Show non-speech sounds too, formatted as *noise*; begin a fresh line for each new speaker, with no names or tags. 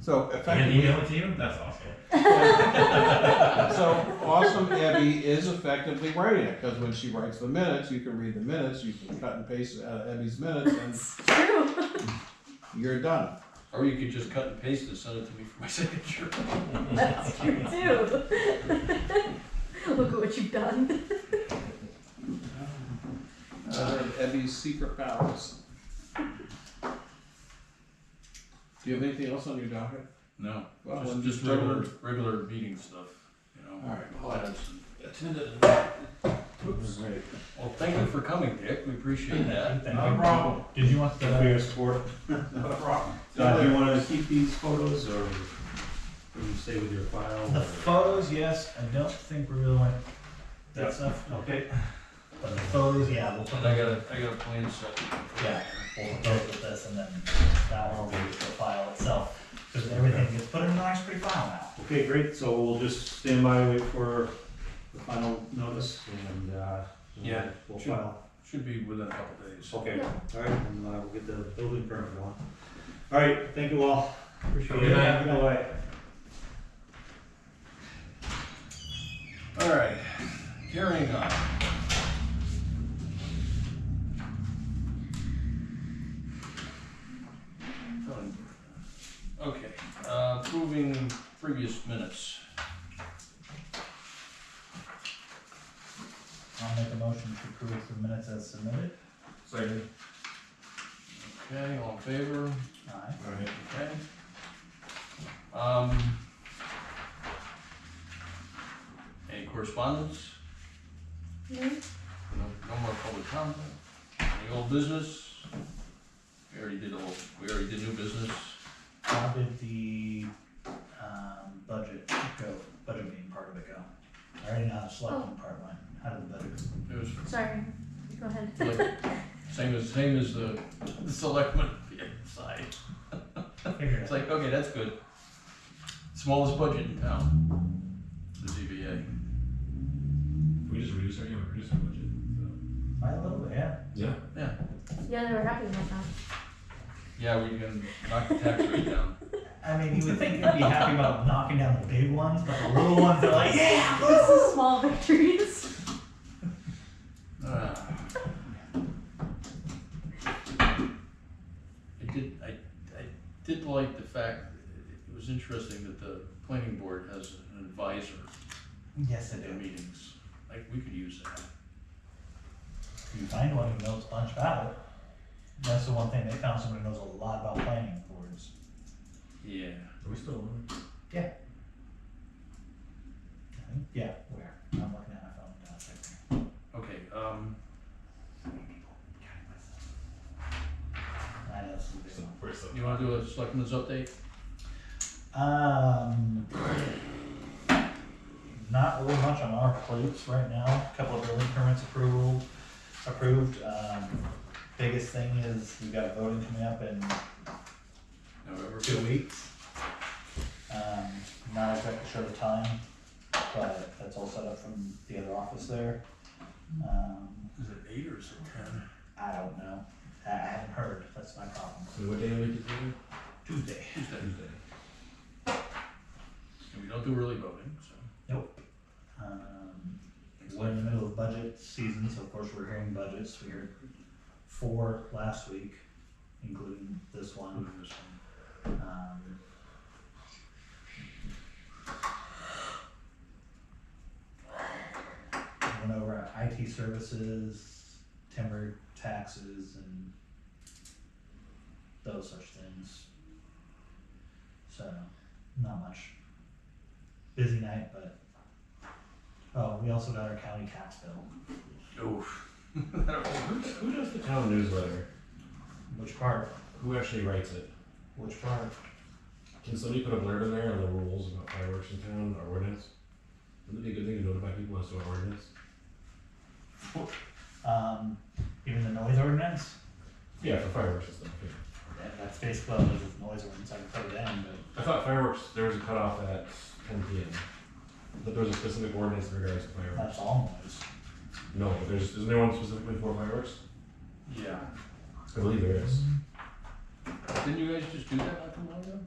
So
And
effectively,
email it to you? That's awesome.
*laughs* so Awesome Abby is effectively writing it, because when she writes the minutes, you can read the minutes, you can cut and paste out of Abby's minutes,
It's true. *laughs*
and you're done.
Or you could just cut and paste and send it to me for my *laughs* signature.
That's true too. *laughs* Look at what you've done. *laughs*
Uh, Abby's secret powers. Do you have anything else on your docket?
No,
Well,
just,
when
just
you
regular, Oh,
started-
regular meeting stuff, you know.
All right.
plans and-
Attended.
Oops. Well, thank you for coming, Dick, we appreciate that.
Not a problem.
Did you want
Thank you for
the,
your support. Not a problem.
Don,
Don,
do
do you wanna keep these photos or stay with your
the
file?
photos, yes, I don't think we really want that stuff,
Okay.
but the photos, yeah, we'll put
And I
that,
got a, I got a plan set.
yeah, we'll close with this and then that one will be the file itself. Cause everything gets put in a nice pretty file now.
Okay, great, so we'll just stand by, wait for the final notice and, uh.
Yeah,
We'll
sure.
file.
Should be within a couple days.
Okay,
Yeah.
all right, and uh, we'll get the building permit going. All right, thank you all. Appreciate
Good night.
Good night.
All right, carrying on. Okay, uh, approving previous minutes.
I'll make a motion to approve the minutes as submitted.
Second.
Okay, all in favor?
Aye.
Alright.
Okay. Um. Any correspondence? No, no more public comment? Any old business? We already did old, we already did new business.
How did the, um, budget go, budget meeting part of it go? I already know how the selecting part went, how did the budget?
It was
Sorry. Go ahead.
like, same as, same as the, the selectmen side.
Figure it
It's like, okay, that's good. Smallest budget in town, the ZBA.
We just reduced our, yeah, we reduced our budget, so.
By a little bit, yeah.
Yeah.
*laughs* Yeah, they were happy about that.
Yeah, we can knock the tax rate down.
I mean, you would think they'd be happy about knocking down the big ones, but the little ones are Oh, like, yeah,
*laughs* This is small victories.
Ah. I did, I, I did like the fact, it was interesting that the planning board has an advisor
Yes,
at
they
their
do.
meetings. Like, we could use that.
You find one who knows a bunch about it. That's the one thing they found someone who knows a lot about planning boards.
Yeah.
Are we still on?
I think- Yeah, where? I'm looking at my phone. now, it's right there.
Okay, um,
I know this is a big one.
First up.
you wanna do a selectmen's update?
Um, not really much on our plates right now. A couple of building permits approval, approved. Um, biggest thing is we've got voting coming up in
November
two
fifth?
weeks. Um, not exactly sure the time, but that's all set up from the other office there. Um,
Is it eight or is it ten?
I don't know. I I haven't heard. That's my problem.
So what day of the week is it?
Tuesday.
Tuesday.
Tuesday.
And we don't do early voting, so.
Nope. Um, we're in the middle of budget season, so of course we're hearing budgets. We heard four last week, including this
we'll
one.
do this one.
Um, Went over our IT services, timber taxes, and those such things. So, not much. Busy night, but, oh, we also got our county tax bill,
Oof. That'll work.
Who does the town newsletter?
which part,
Who actually writes it?
which part,
Can somebody put a blurb in there on the rules about uh, fireworks in town, our ordinance? Wouldn't it be a good thing to notify people as to our ordinance?
um, even the noise ordinance?
Yeah, for fireworks and stuff, yeah.
Yeah, that's basically what it is, with noise ordinance, I can put it in, but
I thought fireworks, there was a cutoff at ten P M. That there was a specific ordinance in regards to fireworks.
That's all noise.
No, but there's, isn't there one specifically for fireworks?
Yeah.
I believe there is.
Didn't you guys just do that not too long ago?